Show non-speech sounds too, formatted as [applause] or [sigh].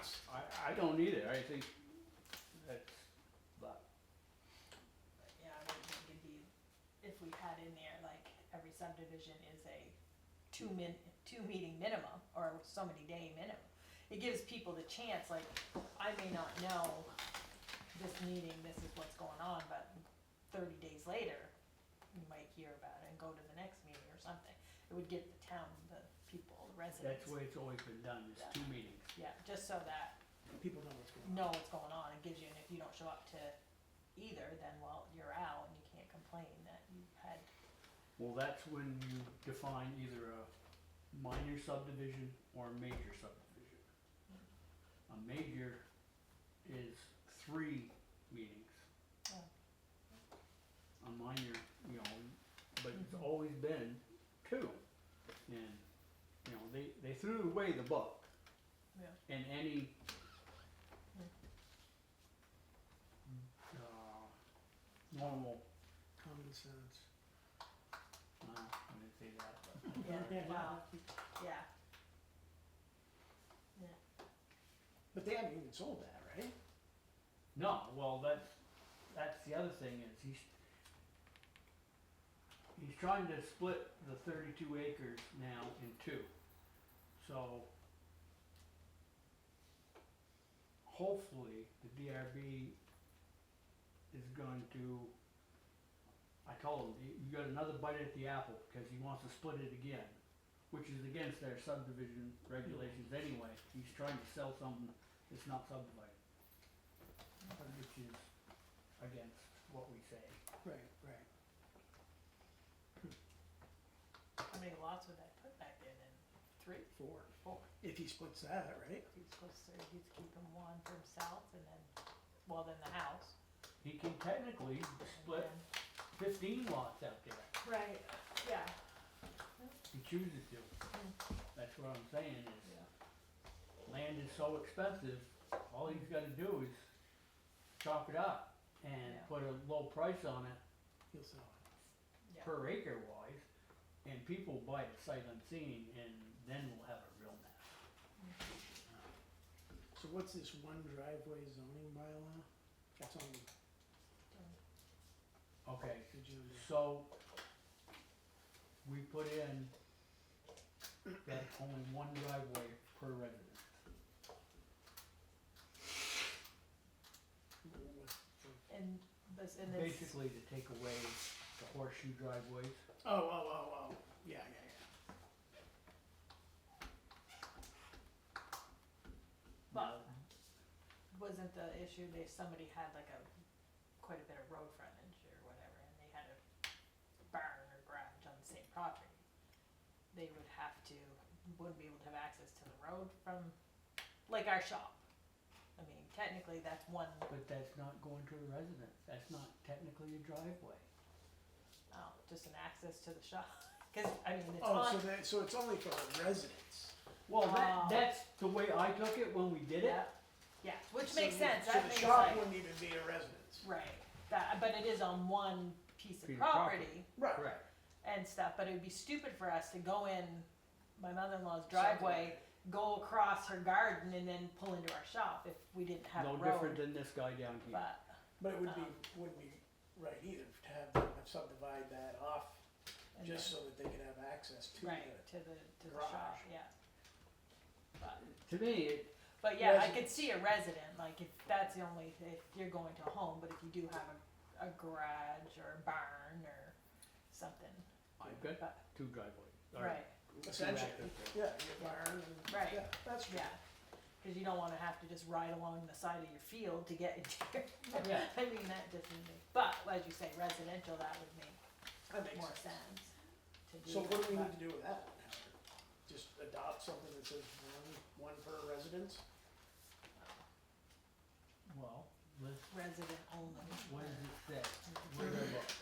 I don't either, I think that's, but, But yeah, I would think it'd be, if we had in there, like, every subdivision is a two min, two meeting minimum, or so many day minimum. It gives people the chance, like, I may not know this meeting, this is what's going on, but thirty days later, you might hear about it and go to the next meeting or something. It would get the town, the people, the residents, that's the way it's always been done, is two meetings. yeah, just so that People know what's going on. know what's going on, it gives you, and if you don't show up to either, then well, you're out and you can't complain that you had, Well, that's when you define either a minor subdivision or a major subdivision. A major is three meetings. Oh. A minor, you know, but it's Mhm. always been two. And, you know, they, they threw away the book. Yeah. And any. Yeah. Uh, normal, Common sense. uh, I didn't say that, but. yeah, wow, yeah. Yeah, But they haven't even sold that, right? No, well, that's, that's the other thing is he's, he's trying to split the thirty-two acres now in two. So hopefully the DRB is going to, I told him, "You- you got another bite at the apple because he wants to split it again, which is against their subdivision regulations anyway. He's trying to sell something that's not subdivided which is against what we say. Right, right. how many lots would that put back in, and three, Four. Four. If he splits that, right? he's supposed to, he's keeping one for himself, and then, well, then the house. He can technically and split then- fifteen lots out there, Right, yeah, if he chooses to. That's what I'm saying is, land is so expensive, all he's gotta do is chop it up and Yeah. put a low price on it He'll sell it. yeah, per acre wise. And people buy it sight unseen and then we'll have a real mess. So what's this one driveway zoning bylaw? That's on the Okay, agenda. So, we put in that only one driveway per resident. What- what- and this, and this. Basically to take away the horseshoe driveways. Oh, oh, oh, oh. Yeah, yeah, yeah. But- wasn't the issue that somebody had like a, quite a bit of road frontage or whatever, and they had a barn or garage on the same property? They would have to, wouldn't be able to have access to the road from, like our shop. I mean, technically, that's one, But that's not going to a residence, that's not technically a driveway. oh, just an access to the shop, [laughs] cause I mean, it's Oh, so on, that, so it's only for residents. Well, that, Ah. that's the way I took it when we did it. yeah, yeah, which So makes the- sense, that makes So the shop like, wouldn't even be a residence. right, that, but it is on one piece Piece of of property. property. Right. Correct. and stuff, but it would be stupid for us to go in my mother-in-law's driveway, go across her garden and then pull into our shop if we didn't have No a different road. than this guy down here. But, But it would be, Um, wouldn't be right either to have them subdivide that off and just so that they could have access to then- it. right, to the, to the garage. shop, yeah. But, To me, it, but yeah, I could see a resident, like if that's the only, if you're going to a home, but if you do have a, a garage or a barn or something, I've got but, two driveways. or right, two Essentially, access yeah, your barn and, Right. yeah, that's true. yeah. Cause you don't wanna have to just ride along the side of your field to get into your [laughs] roads. Yeah, I mean, that doesn't make, but as you say, residential, that would make That makes more sense. sense to do. So what do we that, need to do with that? Howard? Just adopt something that says one, one per residence? well, let's, but Resident only. what does it say? Where do I look?